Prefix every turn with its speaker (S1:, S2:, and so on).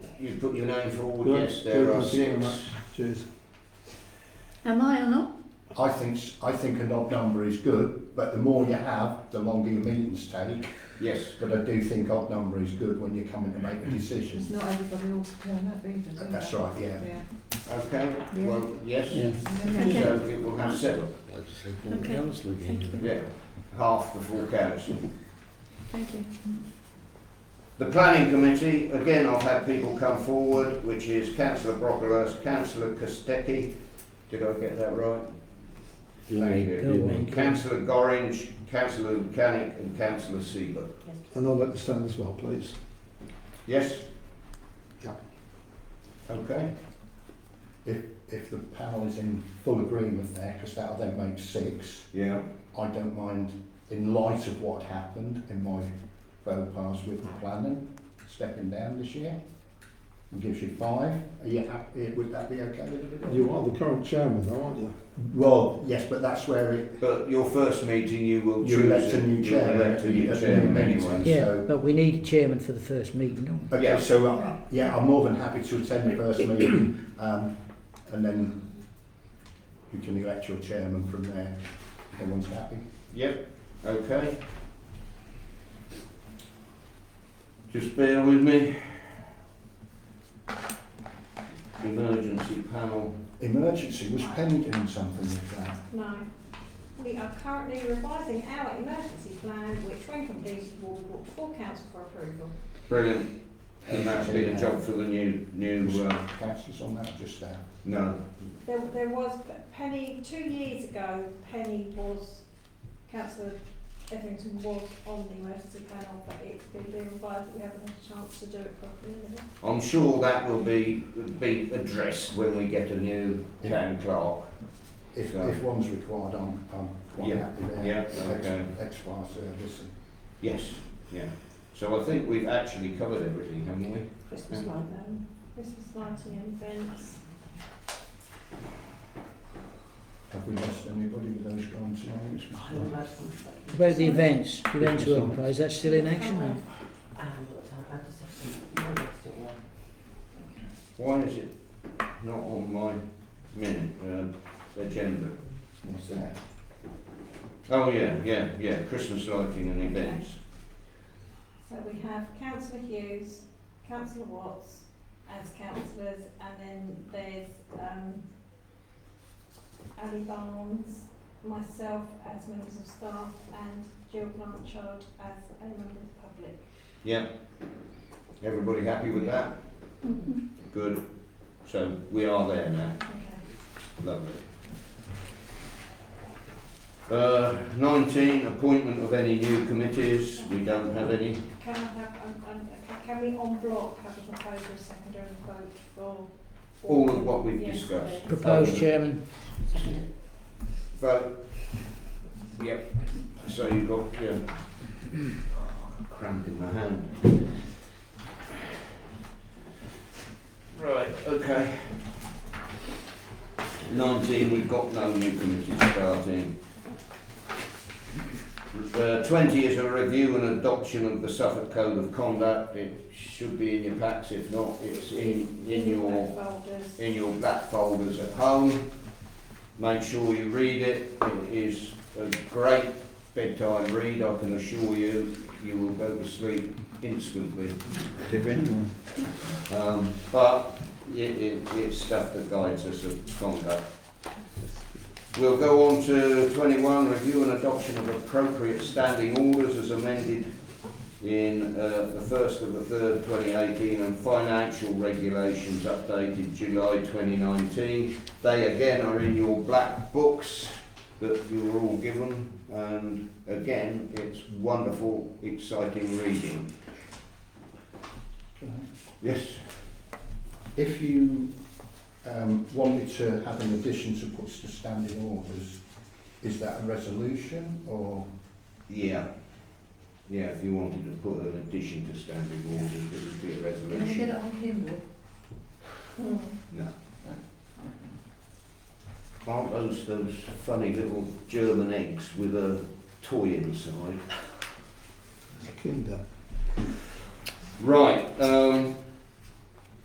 S1: you put your name forward,
S2: Right,
S1: yes, there
S2: good,
S1: are
S2: thank you very
S1: six.
S2: much. Cheers.
S3: Am I or not?
S4: I think s- I think an odd number is good, but the more you have, the longer your meetings take.
S1: Yes,
S4: But I do think odd number is good when you're coming to make a decision.
S5: It's not everybody all to turn up either. is
S4: That's
S5: it?
S4: right, yeah.
S5: Yeah.
S1: okay,
S5: Yeah.
S1: well,
S2: Yeah.
S1: yes,
S5: And
S3: Okay.
S5: then-
S1: so it will have seven,
S2: I just said, well,
S3: Okay.
S2: honestly,
S3: Thank you.
S1: yeah, half the full council.
S3: Thank you.
S1: The planning committee, again, I've had people come forward, which is councillor Brocklehurst, councillor Kostecki, did I get that right? Thank you. Councillor Gorringe, councillor Mechanic and councillor Seaver.
S2: And I'll let you stand as well, please.
S1: Yes?
S2: Yeah.
S1: Okay,
S4: If if the panel is in full agreement there, because that'll then make six.
S1: yeah,
S4: I don't mind, in light of what happened in my faux pas with the planning, stepping down this year. It gives you five. Are you happy? Would that be okay with everybody?
S2: You are the current chairman, though, aren't you?
S4: Well, yes, but that's where it,
S1: but your first meeting you will choose.
S4: you elect a new
S1: you'll
S4: chair.
S1: elect a new
S4: at the
S1: chairman
S4: meeting,
S1: anyway.
S6: Yeah,
S4: so-
S6: but we need a chairman for the first meeting, don't we?
S4: Okay, so, uh, yeah, I'm more than happy to attend the first meeting, um, and then you can elect your chairman from there. Everyone's happy.
S1: Yep, okay. Just bear with me. Emergency panel,
S4: Emergency was pending something with that.
S7: No. We are currently revising our emergency plan, which when completed will be brought before council for approval.
S1: brilliant, and that's been a job for the new, new, uh,
S4: Councillors on that just uh, there.
S1: no,
S7: There, there was, Penny, two years ago, Penny was, councillor Etherington was on the emergency plan, but it's been being revised, we haven't had a chance to do it properly.
S1: I'm sure that will be, be addressed when we get a new town clerk.
S4: If,
S1: So-
S4: if one's required, I'm, I'm quite
S1: Yeah,
S4: happy there.
S1: yeah,
S4: Ex-
S1: okay.
S4: Ex fire service. and-
S1: Yes, yeah. So I think we've actually covered everything, haven't we?
S7: Christmas lighting, um, Christmas lighting and events.
S4: Have we lost anybody with those grants and all
S6: About the events, events to enterprise, that's still in action.
S1: Why is it not on my minute, um, agenda?
S4: What's that?
S1: Oh, yeah, yeah, yeah, Christmas lighting and events.
S7: So we have councillor Hughes, councillor Watts as councillors, and then there's, um, Ali Barnes, myself as members of staff, and Jill Blanchard as a member of the public.
S1: Yeah. Everybody happy with that? Good. So we are there now.
S7: Okay.
S1: Lovely. Uh, nineteen, appointment of any new committees. We don't have any.
S7: Can I have, um, um, can we on block have a proposal secondary vote for?
S1: All of what we've
S7: Yes,
S1: discussed.
S7: please.
S6: Proposed chairman,
S1: Vote. Yep. So you've got, yeah. Cramp in my hand. Right, okay. Nineteen, we've got no new committees starting. Uh, twenty is a review and adoption of the Suffolk Code of Conduct. It should be in your packs, if not, it's in, in your
S7: Folders.
S1: in your black folders at home. Make sure you read it. It is a great bedtime read, I can assure you. You will go to sleep instantly.
S2: If anyone.
S1: Um, but it, it, it's stuff that guides us of conduct. We'll go on to 21, review and adoption of appropriate standing orders as amended in uh, the 1st of the 3rd, 2018, and financial regulations updated July 2019. They again are in your black books that you were all given, and again, it's wonderful, exciting reading. Yes,
S4: If you um, wanted to have an addition to puts to standing orders, is that a resolution or?
S1: Yeah. Yeah, if you wanted to put an addition to standing orders, it would be a
S5: Can I get it
S1: resolution.
S5: on Kindle?
S7: Hmm.
S1: No. Aren't those those funny little German eggs with a toy inside?
S2: Kinder.
S1: Right, um,